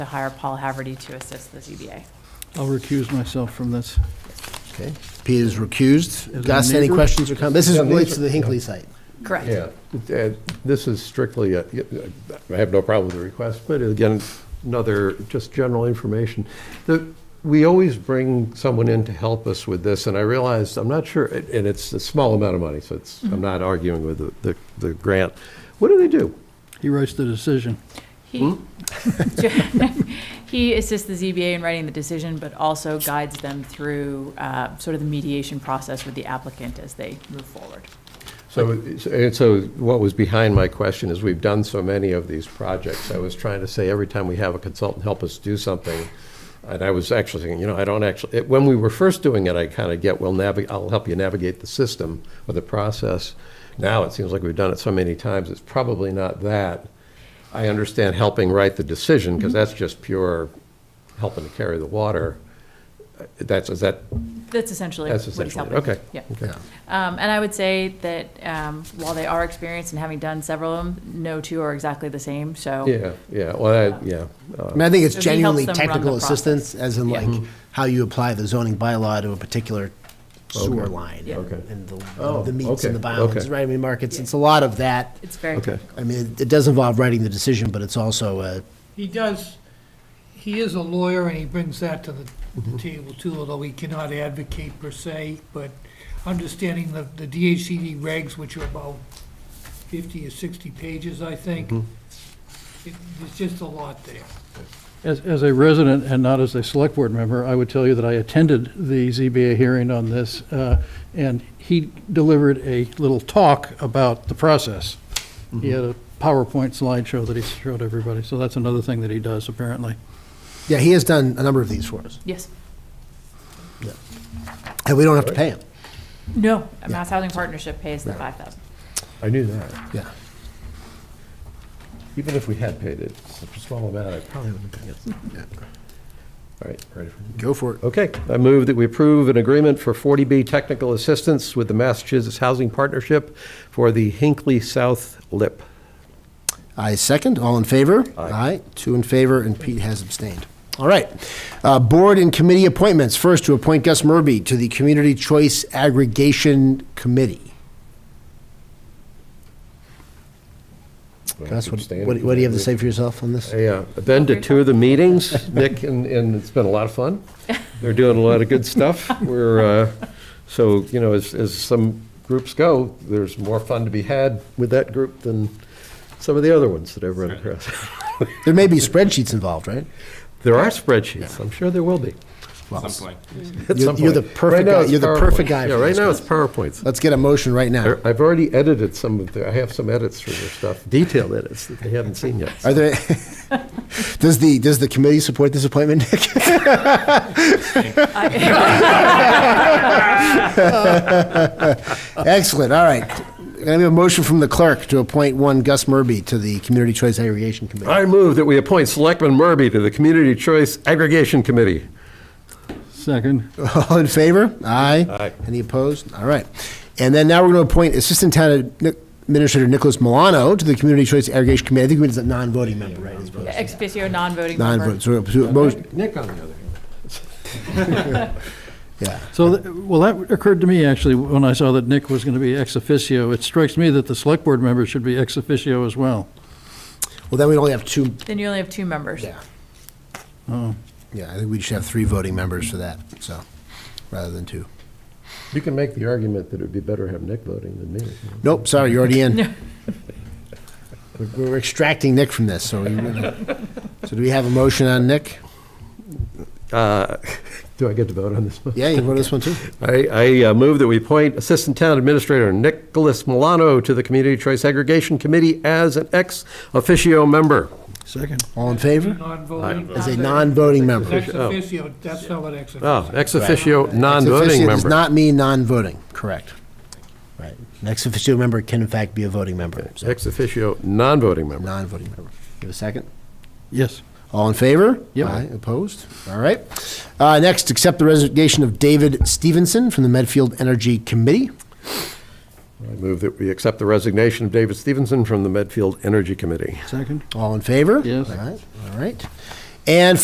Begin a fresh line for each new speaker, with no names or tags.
to hire Paul Haverty to assist the ZBA.
I'll recuse myself from this.
Okay, Peter's recused.
it
Gus,
a
any
neighbor?
questions or comments? This is
Yeah, these
relates to
are-
the Hinckley site.
Correct.
Yeah, uh, this is strictly, a- I have no problem with the request, but again, another, just general information. The- We always bring someone in to help us with this, and I realized, I'm not sure, and and it's a small amount of money, so it's, I'm not arguing with the- the, the grant. What do they do?
He writes the decision.
He
Hmm?
he assists the ZBA in writing the decision, but also guides them through uh, sort of the mediation process with the applicant as they move forward.
So, it's- and so what was behind my question is we've done so many of these projects. I was trying to say every time we have a consultant help us do something, and I was actually thinking, you know, I don't actually, it- when we were first doing it, I kind of get, well, navigate, I'll help you navigate the system or the process. Now it seems like we've done it so many times, it's probably not that. I understand helping write the decision because that's just pure helping to carry the water. Uh, That's, is that,
That's essentially what
that's
he's
essentially,
helping.
it. okay.
Yeah.
Okay.
Um, And I would say that um, while they are experienced and having done several of them, no two are exactly the same, so.
Yeah, yeah, well, I- yeah. uh,
I mean, I think it's
So he helps
genuinely
them run the
technical
process.
assistance, as in
Yeah.
like how you apply the zoning bylaw to a particular sewer
Okay.
line.
Yeah.
Okay.
And the,
Oh,
the meets and the
okay,
bounds,
okay.
right? I mean, Mark, it's, it's a lot of that.
It's very.
Okay.
I mean, it- it does involve writing the decision, but it's also uh, a
He does, he is a lawyer and he brings that to the the table too, although he cannot advocate per se, but understanding the, the DHCD regs, which are about fifty or sixty pages, I think, it- there's just a lot there.
As, as a resident and not as a select board member, I would tell you that I attended the ZBA hearing on this, uh, and he delivered a little talk about the process. He had a PowerPoint slideshow that he showed everybody, so that's another thing that he does, apparently.
Yeah, he has done a number of these for us,
Yes.
and we don't have to pay him.
No, Mass Housing Partnership pays the 5,000.
I knew that.
Yeah.
Even if we had paid it, it's a small amount, I probably wouldn't have paid it. All right, ready for
Go for it.
Okay, I move that we approve an agreement for 40B technical assistance with the Massachusetts Housing Partnership for the Hinckley South Lip.
I second. All in favor?
Aye.
Two in favor, and Pete has abstained. All right. Uh, Board and committee appointments. First, to appoint Gus Murby to the Community Choice Aggregation Committee. Gus, what, what what do you have to say for yourself on this?
Yeah, I've been to two of the meetings, Nick, and, and it's been a lot of fun. They're doing a lot of good stuff. We're, uh, so, you know, as, as some groups go, there's more fun to be had with that group than some of the other ones that I've run across.
There may be spreadsheets involved, right?
There are spreadsheets, I'm sure there will be.
Well,
some point.
at
You're-
some
you're the
point. Uh,
perfect
Right now,
guy-
it's
you're the perfect
PowerPoint.
guy
Yeah,
for
right
this
now, it's PowerPoints.
Let's get a motion right now.
I- I've already edited some of the, I have some edits for their stuff, detailed edits that they haven't seen yet.
Are there, does the, does the committee support this appointment, Nick? Excellent, all right. Can I have a motion from the clerk to appoint one Gus Murby to the Community Choice Aggregation Committee?
I move that we appoint Selectman Murby to the Community Choice Aggregation Committee.
Second,
All in favor? Aye.
Aye.
Any opposed? All right. And then now we're going to appoint Assistant Town Administrator Nicholas Milano to the Community Choice Aggregation Committee. I think he's a non-voting member, right? He's voting.
Ex officio, non-voting member.
Non-voting, so, so a motion-
Nick, on the other hand.
yeah.
So, th- well, that occurred to me, actually, when I saw that Nick was going to be ex officio. It strikes me that the select board member should be ex officio as well.
Well, then we only have two
Then you only have two members.
Yeah.
Oh.
Yeah, I think we should have three voting members for that, so, rather than two.
You can make the argument that it'd be better to have Nick voting than me.
Nope, sorry, you're already in. We're- We're extracting Nick from this, so we, so do we have a motion on Nick?
Uh, Do I get to vote on this one?
Yeah, you vote this one too?
I, I uh, move that we appoint Assistant Town Administrator Nicholas Milano to the Community Choice Aggregation Committee as an ex officio member.
Second.
All in favor?
Non-voting.
As a non-voting member.
Ex officio, that's not what ex officio.
Oh, ex officio,
Ex officio
non-voting
Does
member.
not mean non-voting, correct. Right. An ex officio member can in fact be a voting member, so,
Ex officio, non-voting member.
non-voting member. Give a second?
Yes.
All in favor?
Yep.
Aye, opposed? All right. Uh, next, accept the resignation of David Stevenson from the Medfield Energy Committee.
I move that we accept the resignation of David Stevenson from the Medfield Energy Committee.
Second.
All in favor?
Yes.
All right, all right. And